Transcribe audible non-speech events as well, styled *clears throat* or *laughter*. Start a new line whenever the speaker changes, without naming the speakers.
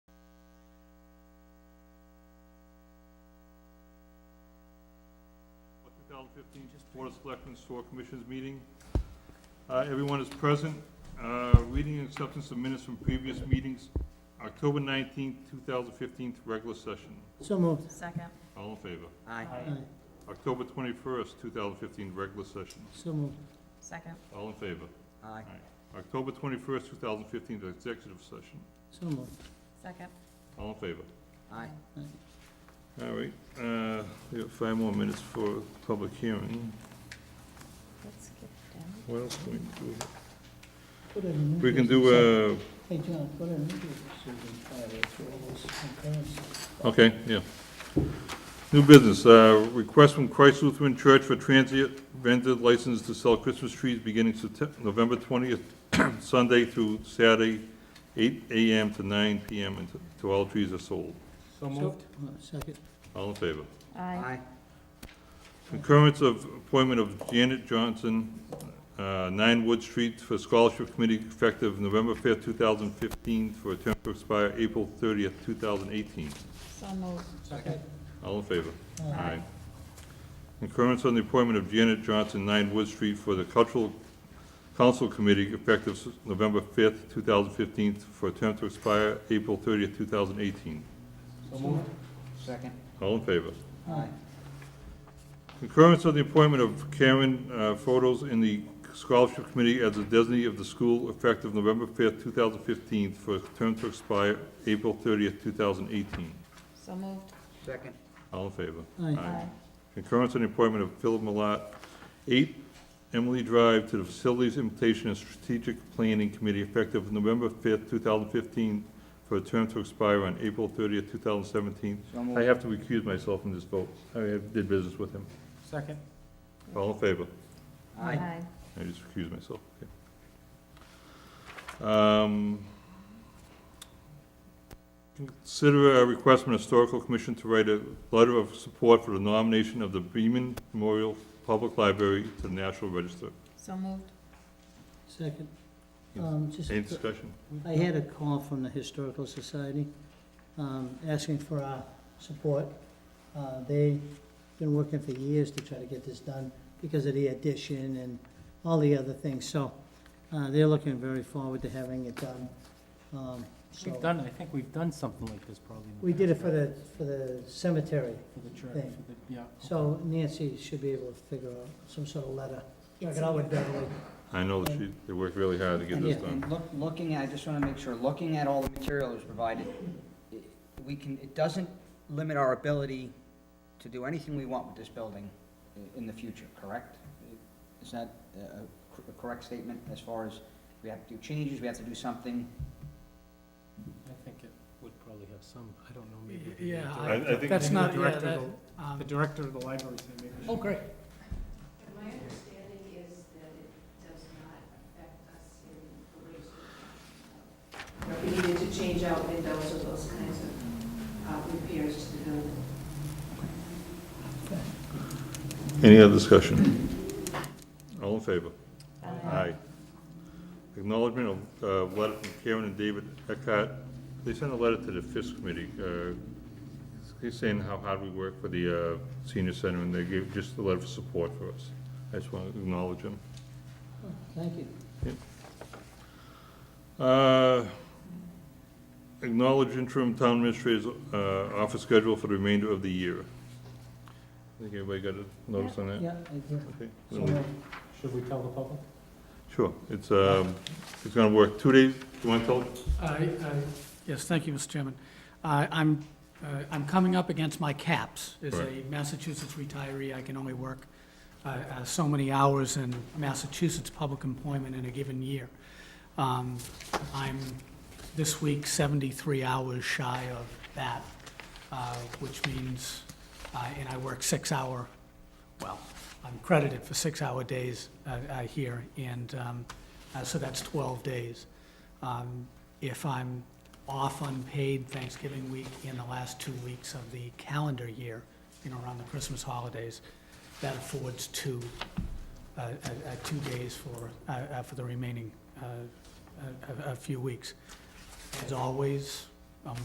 2015 Board of Selectmen Store Commissioners meeting. Uh, Everyone is present. Uh, Reading and acceptance of minutes from previous meetings, October 19th, 2015, regular session.
So moved.
Second,
All in favor?
Aye.
Aye.
October 21st, 2015, regular session.
So moved.
second,
All in favor?
Aye.
October 21st, 2015, executive session.
So moved.
second.
All in favor?
Aye.
All right, uh, we have five more minutes for public hearing.
Let's skip down.
What else can we do?
Put it in
We
English.
can do, uh,
Hey, John, put it in English. so we can try to throw those comparisons.
uh, okay, yeah. New business, uh, request from Christ Lutheran Church for transient rented license to sell Christmas trees beginning Septem- November 20th, *clears throat* Sunday through Saturday, 8 AM to 9 PM, and to all trees are sold.
So
So, uh, Second.
All in favor?
Aye,
Aye.
Concurrence of appointment of Janet Johnson, uh, 9 Wood Street for Scholarship Committee effective November 5th, 2015, for a term to expire April 30th, 2018.
so moved.
Second.
All in favor?
Aye.
Concurrence on the appointment of Janet Johnson, 9 Wood Street, for the Cultural Council Committee effective s- November 5th, 2015, for a term to expire April 30th, 2018.
So moved. Second.
All in favor?
Aye.
Concurrence of the appointment of Karen uh, Photos in the Scholarship Committee as a designee of the school effective November 5th, 2015, for a term to expire April 30th, 2018.
So moved.
Second.
All in favor?
Aye.
Concurrence on the appointment of Philip Malat, 8 Emily Drive, to the Facilities Implementation and Strategic Planning Committee effective November 5th, 2015, for a term to expire on April 30th, 2017.
So
I
moved.
have to recuse myself from this vote. I did business with him.
Second.
All in favor?
Aye.
I just recuse myself, okay. Um, Consider a request from the Historical Commission to write a letter of support for the nomination of the Beaman Memorial Public Library to the National Register.
So moved.
Second. Um, just,
Any discussion?
I had a call from the Historical Society, um, asking for our support. Uh, they've been working for years to try to get this done because of the addition and all the other things, so, uh, they're looking very forward to having it done, um, so.
We've done, I think we've done something like this probably. in the
We did it
past,
for
right?
the, for the cemetery,
For the church,
thing.
for the, yeah.
So Nancy should be able to figure out some sort of letter. Check it out with Beverly.
I know that she, they worked really hard to get this
Yeah.
done.
And look, looking at, I just want to make sure, looking at all the material that was provided, i- we can, it doesn't limit our ability to do anything we want with this building i- in the future, correct? Is that a a cor- a correct statement as far as we have to do changes, we have to do something?
I think it would probably have some, I don't know, maybe. the
Yeah,
director-
I- I think-
I- that's
maybe the
not, yeah,
director
that,
of the- The
um,
director of the library, so maybe.
oh, great.
My understanding is that it does not affect us in the ways that, uh, we needed to change out windows or those kinds of uh, repairs to the building.
Any other discussion? All in favor? Aye. Acknowledgement of, uh, letter from Karen and David Eckhart. They sent a letter to the FISC committee, uh, he's saying how hard we work for the, uh, senior center, and they gave just a letter of support for us. I just want to acknowledge them.
Thank you.
Uh, Acknowledge interim town administrator's, uh, office schedule for the remainder of the year. I think everybody got a notice on that?
Yeah, I do.
Okay.
So moved.
Should we tell the public?
Sure, it's, um, it's gonna work two days, you wanna tell?
I- I- Yes, thank you, Mr. Chairman. I- I'm, uh, I'm coming up against my caps. As a
Right.
Massachusetts retiree, I can only work uh, uh, so many hours in Massachusetts public employment in a given year. Um, I'm this week 73 hours shy of that, uh, which means, uh, and I work six-hour, well, I'm credited for six-hour days uh, uh, here, and um, uh, so that's 12 days. Um, If I'm off unpaid Thanksgiving week in the last two weeks of the calendar year, you know, around the Christmas holidays, that affords two, uh, uh, uh, two days for, uh, uh, for the remaining uh, a- a a few weeks. As always,